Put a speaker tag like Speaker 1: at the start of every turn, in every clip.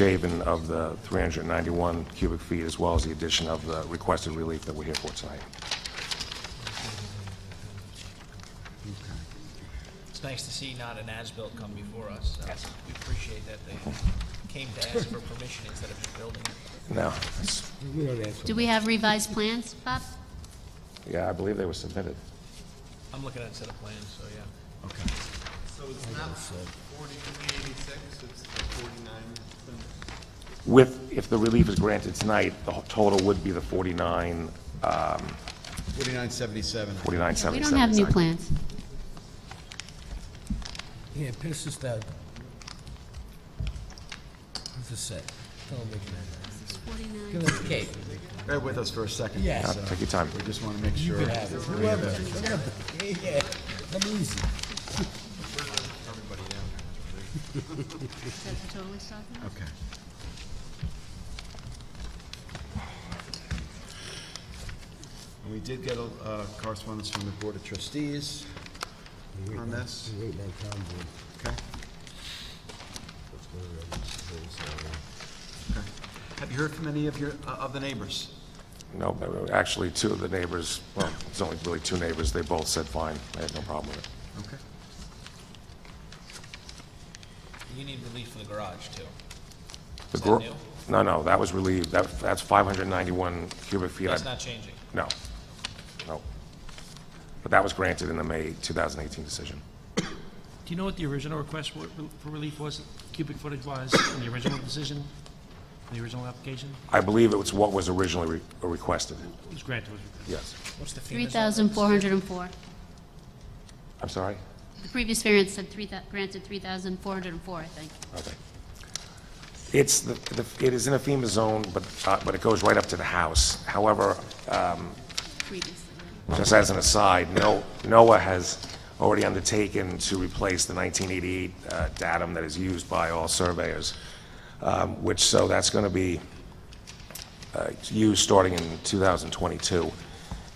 Speaker 1: shaven of the 391 cubic feet, as well as the addition of the requested relief that we're here for tonight.
Speaker 2: It's nice to see not an as-built come before us. Uh, We appreciate that they came to ask for permission instead of just building.
Speaker 1: Now, it's-
Speaker 3: We don't ask.
Speaker 4: Do we have revised plans, Bob?
Speaker 1: yeah, I believe they were submitted.
Speaker 2: I'm looking at a set of plans, so yeah.
Speaker 5: So it's not forty-three eighty-six, it's the forty-nine.
Speaker 1: With, if the relief is granted tonight, the whole total would be the 49, um,
Speaker 5: Forty-nine seventy-seven.
Speaker 1: 4977.
Speaker 4: We don't have new plans.
Speaker 3: Yeah, pass this down. What's the set? Don't make that. Give us cake.
Speaker 5: Bear with us for a second.
Speaker 3: Yes.
Speaker 1: Take your time.
Speaker 5: We just want to make sure.
Speaker 3: You can have it. Whoever, whoever. Yeah, yeah. Come easy.
Speaker 5: Okay. We did get a uh, correspondence from the Board of Trustees on this.
Speaker 3: Wait, that convoy.
Speaker 5: Okay. Okay. Have you heard from any of your, uh, of the neighbors?
Speaker 1: No, but uh, actually, two of the neighbors, well, it's only really two neighbors, they both said fine, they had no problem with it.
Speaker 5: Okay.
Speaker 2: You need relief for the garage, too.
Speaker 1: The
Speaker 2: that
Speaker 1: gro-
Speaker 2: new?
Speaker 1: No, no, that was relieved, that, that's 591 cubic feet. I-
Speaker 2: That's not changing.
Speaker 1: No, no. But that was granted in the May 2018 decision.
Speaker 6: Do you know what the original request wa- for relief was, cubic footage was, in the original decision, in the original application?
Speaker 1: I believe it was what was originally re- requested,
Speaker 6: It was granted, was it?
Speaker 1: yes.
Speaker 2: What's the fee?
Speaker 4: 3,404.
Speaker 1: I'm sorry?
Speaker 4: The previous variance said three thou- granted 3,404, I think.
Speaker 1: Okay. It's, the the- it is in a FEMA zone, but, uh, but it goes right up to the house. However, uh,
Speaker 4: previously.
Speaker 1: Just as an aside, No- NOAA has already undertaken to replace the 1988 uh, datum that is used by all surveyors, um, which, so that's going to be uh, used starting in 2022,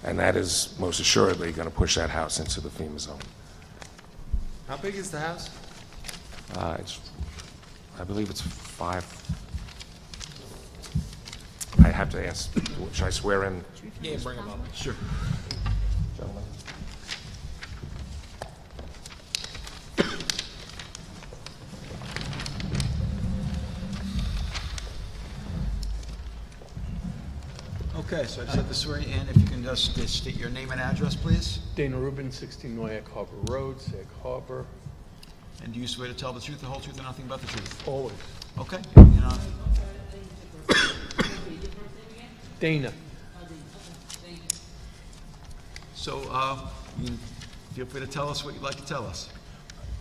Speaker 1: and that is most assuredly going to push that house into the FEMA zone.
Speaker 5: How big is the house?
Speaker 1: Uh, It's, I believe it's five, I have to ask, should I swear in?
Speaker 2: Yeah, bring them up.
Speaker 5: Sure.
Speaker 1: gentlemen.
Speaker 5: Okay, so I just have to swear you in. If you can just state your name and address, please.
Speaker 7: Dana Rubin, 16 Noyak Harbor Road, Sag Harbor,
Speaker 5: And do you swear to tell the truth, the whole truth, and nothing but the truth?
Speaker 7: always.
Speaker 5: Okay. You know,
Speaker 7: Dana,
Speaker 5: So, uh, you can feel free to tell us what you'd like to tell us.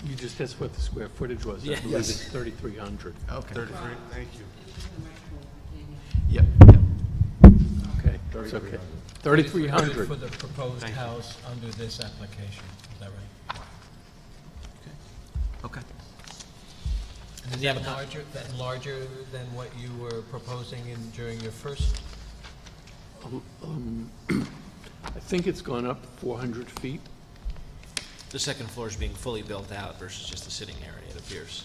Speaker 7: you just asked what the square footage was. I believe
Speaker 5: Yes.
Speaker 7: it's 3,300.
Speaker 5: Okay. Thirty-three,
Speaker 8: Thank you.
Speaker 5: Yep, yep.
Speaker 7: Okay, it's okay. 3,300.
Speaker 2: For the proposed house under this application, is that right?
Speaker 5: Okay.
Speaker 2: Does he have a larger, that larger than what you were proposing in, during your first?
Speaker 7: I think it's gone up 400 feet.
Speaker 9: The second floor is being fully built out versus just the sitting area, it appears.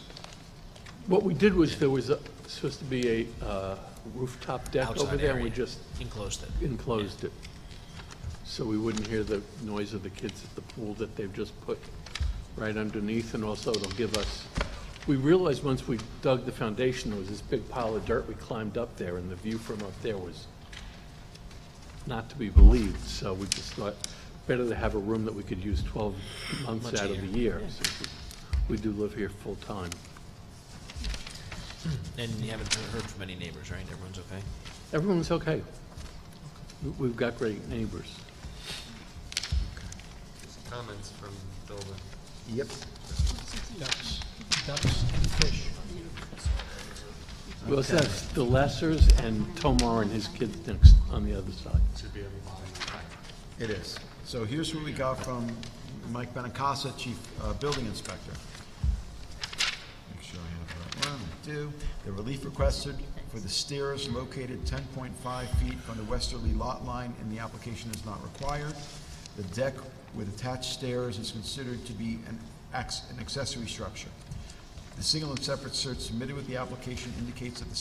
Speaker 7: What we did was, there was a- supposed to be a uh, rooftop deck over
Speaker 9: Outside
Speaker 7: there, and we
Speaker 9: area.
Speaker 7: just
Speaker 9: Enclosed it.
Speaker 7: enclosed it. So we wouldn't hear the noise of the kids at the pool that they've just put right underneath, and also it'll give us, we realized once we dug the foundation, there was this big pile of dirt, we climbed up there, and the view from up there was not to be believed, so we just thought, better to have a room that we could use twelve months out of the year. since We we do live here full-time.
Speaker 9: And you haven't heard from any neighbors, right? Everyone's okay?
Speaker 7: Everyone's okay. We- We've got great neighbors.
Speaker 8: Comments from Bill.
Speaker 5: Yep.
Speaker 2: Ducks, ducks and fish.
Speaker 7: Well, it's that's the Lessers and Tomar and his kids next, on the other side.
Speaker 5: It is. So here's what we got from Mike Benacasa, Chief uh, Building Inspector. Make sure I have that one, I do. The relief requested for the stairs located ten point five feet from the westerly lot line in the application is not required. The deck with attached stairs is considered to be an ex, an accessory structure. The single and separate search submitted with the application indicates that the